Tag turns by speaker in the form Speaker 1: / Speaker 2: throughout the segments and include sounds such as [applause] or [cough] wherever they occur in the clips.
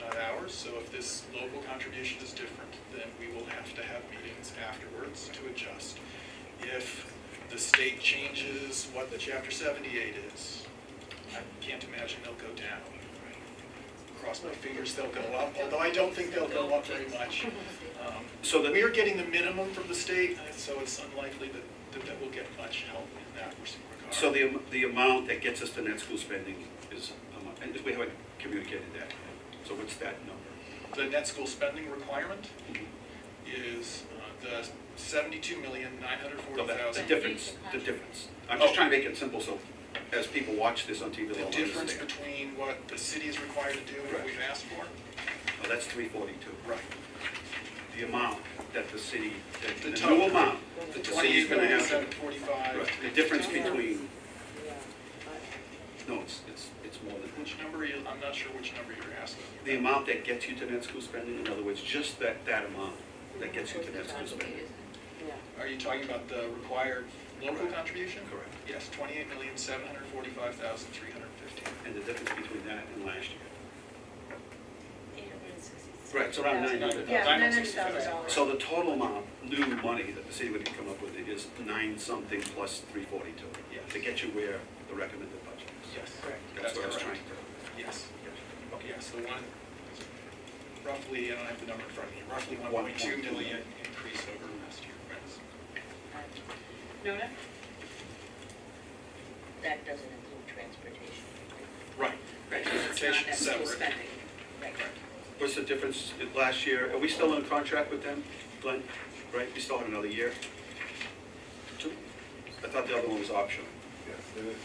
Speaker 1: not ours, so if this local contribution is different, then we will have to have meetings afterwards to adjust. If the state changes what the chapter seventy-eight is, I can't imagine they'll go down. Cross my fingers, they'll go up, although I don't think they'll go up very much. Um,
Speaker 2: So the-
Speaker 1: We are getting the minimum from the state, and so it's unlikely that, that- that we'll get much help in that regard.
Speaker 2: So the, am- the amount that gets us to net school spending is, um, and we haven't communicated that. So what's that number?
Speaker 1: The net school spending requirement is uh, the seventy-two million, nine hundred
Speaker 2: No,
Speaker 1: forty
Speaker 2: that- The
Speaker 1: thousand.
Speaker 2: difference, the difference. I'm just
Speaker 1: Oh.
Speaker 2: trying to make it simple so as people watch this on TV,
Speaker 1: The
Speaker 2: they'll
Speaker 1: difference
Speaker 2: understand.
Speaker 1: between what the city is required to do and what
Speaker 2: Right.
Speaker 1: we've asked for.
Speaker 2: Oh, that's three forty-two.
Speaker 1: Right.
Speaker 2: The amount that the city, that
Speaker 1: The
Speaker 2: the
Speaker 1: total.
Speaker 2: new amount
Speaker 1: The
Speaker 2: that the city's
Speaker 1: twenty-eight
Speaker 2: gonna
Speaker 1: million,
Speaker 2: have.
Speaker 1: seven forty-five.
Speaker 2: Right, The difference
Speaker 3: Yeah.
Speaker 2: between,
Speaker 3: Yeah.
Speaker 2: no, it's, it's, it's more than,
Speaker 1: Which number are you, I'm not sure which number you're asking.
Speaker 2: the amount that gets you to net school spending, in other words, just that, that amount that gets you to net school spending.
Speaker 1: Are you talking about the required local
Speaker 2: Correct.
Speaker 1: contribution?
Speaker 2: Correct.
Speaker 1: Yes, twenty-eight million, seven hundred forty-five thousand, three hundred fifteen.
Speaker 2: And the difference between that and last year.
Speaker 3: Eight hundred and sixty-six.
Speaker 2: Right, it's around nine hundred
Speaker 3: Yeah,
Speaker 2: thousand.
Speaker 3: nine hundred thousand dollars.
Speaker 2: So the total amount, new money that the city would come up with is nine something plus three forty-two.
Speaker 1: Yes.
Speaker 2: To get you where the recommended budget is.
Speaker 1: Yes.
Speaker 3: Correct.
Speaker 2: That's what I was trying
Speaker 1: correct.
Speaker 2: to.
Speaker 1: Yes. Yes, the one, roughly, I don't have the number in front of me, roughly 1.2
Speaker 2: One point two.
Speaker 1: million increase over last year. right?
Speaker 3: Nona?
Speaker 4: That doesn't include transportation.
Speaker 1: Right. Transportation
Speaker 4: It's not that school
Speaker 1: separate.
Speaker 4: spending. Right.
Speaker 2: What's the difference in last year? Are we still in contract with them, Glenn? Right, we still have another year? Two? I thought the other one was optional.
Speaker 5: Yes, it is.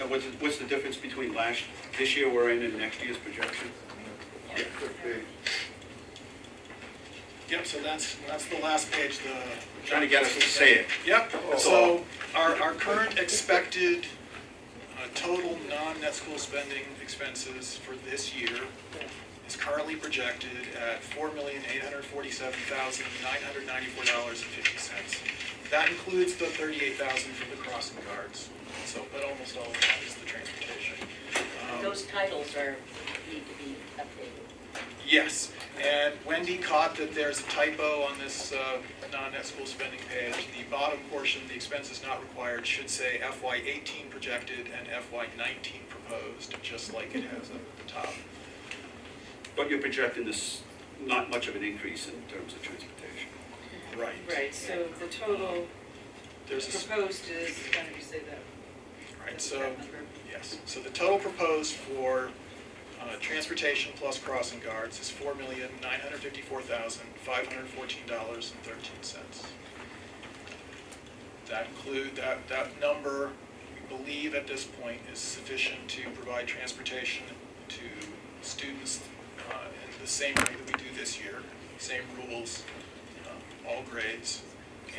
Speaker 2: And what's, what's the difference between last, this year we're in and next year's projection?
Speaker 1: Yep, so that's, that's the last page, the.
Speaker 2: Trying to get us to say it.
Speaker 1: Yep,
Speaker 2: That's
Speaker 1: so
Speaker 2: all.
Speaker 1: our, our current expected uh, total non-net school spending expenses for this year is currently projected at $4,847,994.50. That includes the $38,000 for the crossing guards, so, but almost all of that is the transportation. Um,
Speaker 4: Those titles are, need to be updated.
Speaker 1: Yes, and Wendy caught that there's a typo on this uh, non-net school spending page. The bottom portion, the expenses not required, should say FY eighteen projected and FY nineteen proposed, just like it has up at the top.
Speaker 2: But you're projecting this, not much of an increase in terms of transportation.
Speaker 1: Right.
Speaker 3: Right, so the total
Speaker 1: There's a s-
Speaker 3: proposed is, why don't you say that?
Speaker 1: Right, so, yes, so the total proposed for uh, transportation plus crossing guards is four million, nine hundred fifty-four thousand, five hundred fourteen dollars and thirteen cents. That include, that, that number, we believe at this point, is sufficient to provide transportation to students uh, in the same way that we do this year, same rules, um, all grades,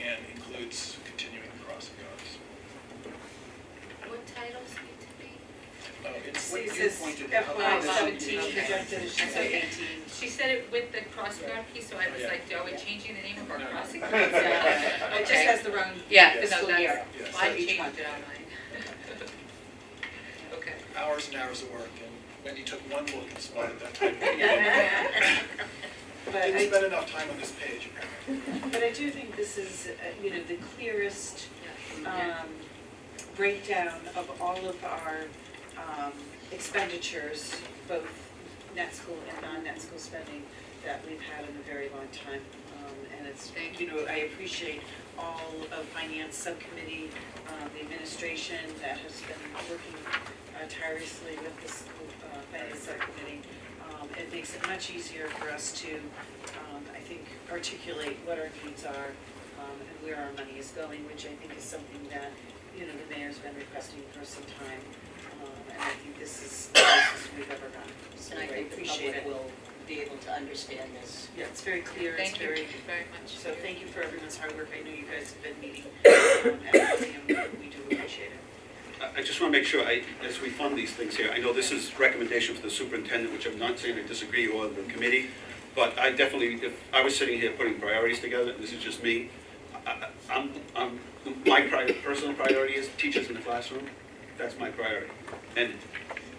Speaker 1: and includes continuing crossing guards.
Speaker 4: What titles need to be?
Speaker 1: Oh, it's
Speaker 3: See,
Speaker 1: what
Speaker 3: it
Speaker 1: you
Speaker 3: says
Speaker 1: pointed out.
Speaker 3: FY
Speaker 6: Oh,
Speaker 3: seventeen
Speaker 6: okay.
Speaker 3: projected, it should say eighteen.
Speaker 6: She said it with the crossing guard piece, so I was like, are we changing the name of our
Speaker 1: No, no.
Speaker 3: [laughs]
Speaker 6: crossing guard?
Speaker 3: It just has the wrong.
Speaker 6: Yeah,
Speaker 1: Yes.
Speaker 6: no,
Speaker 3: Fiscal
Speaker 6: that's,
Speaker 3: [laughs] year.
Speaker 1: Yes.
Speaker 6: I
Speaker 3: So each
Speaker 6: changed it
Speaker 3: month.
Speaker 6: online. [laughs] Okay.
Speaker 1: Hours and hours of work, and Wendy took one look and spotted
Speaker 3: [laughs]
Speaker 1: that typo.
Speaker 3: But
Speaker 1: Didn't
Speaker 3: I,
Speaker 1: spend enough time on this page, apparently.
Speaker 3: but I do think this is, uh, you know, the clearest
Speaker 6: Yeah.
Speaker 3: um, breakdown of all of our um, expenditures, both net school and non-net school spending, that we've had in a very long time. Um, And it's,
Speaker 6: Thank
Speaker 3: you know, I appreciate all of finance subcommittee, um, the administration that has been working uh, tirelessly with the school uh, finance subcommittee. Um, It makes it much easier for us to, um, I think, articulate what our needs are um, and where our money is going, which I think is something that, you know, the mayor's been requesting for some time. Um, And I think this is the closest we've ever gotten. So
Speaker 4: And I
Speaker 3: I
Speaker 4: think the
Speaker 3: appreciate
Speaker 4: public
Speaker 3: it.
Speaker 4: will be able to understand this.
Speaker 3: Yeah, it's very clear, it's
Speaker 6: Thank you
Speaker 3: very,
Speaker 6: very much.
Speaker 3: so thank you for everyone's hard work. I know you guys have been meeting, um, and we do appreciate it.
Speaker 2: I- I just want to make sure, I, as we fund these things here, I know this is recommendation for the superintendent, which I'm not saying I disagree or the committee, but I definitely, if I was sitting here putting priorities together, this is just me, I- I- I'm, I'm, my pri- personal priority is teachers in the classroom, that's my priority. And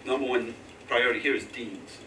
Speaker 2: number one priority here is deans.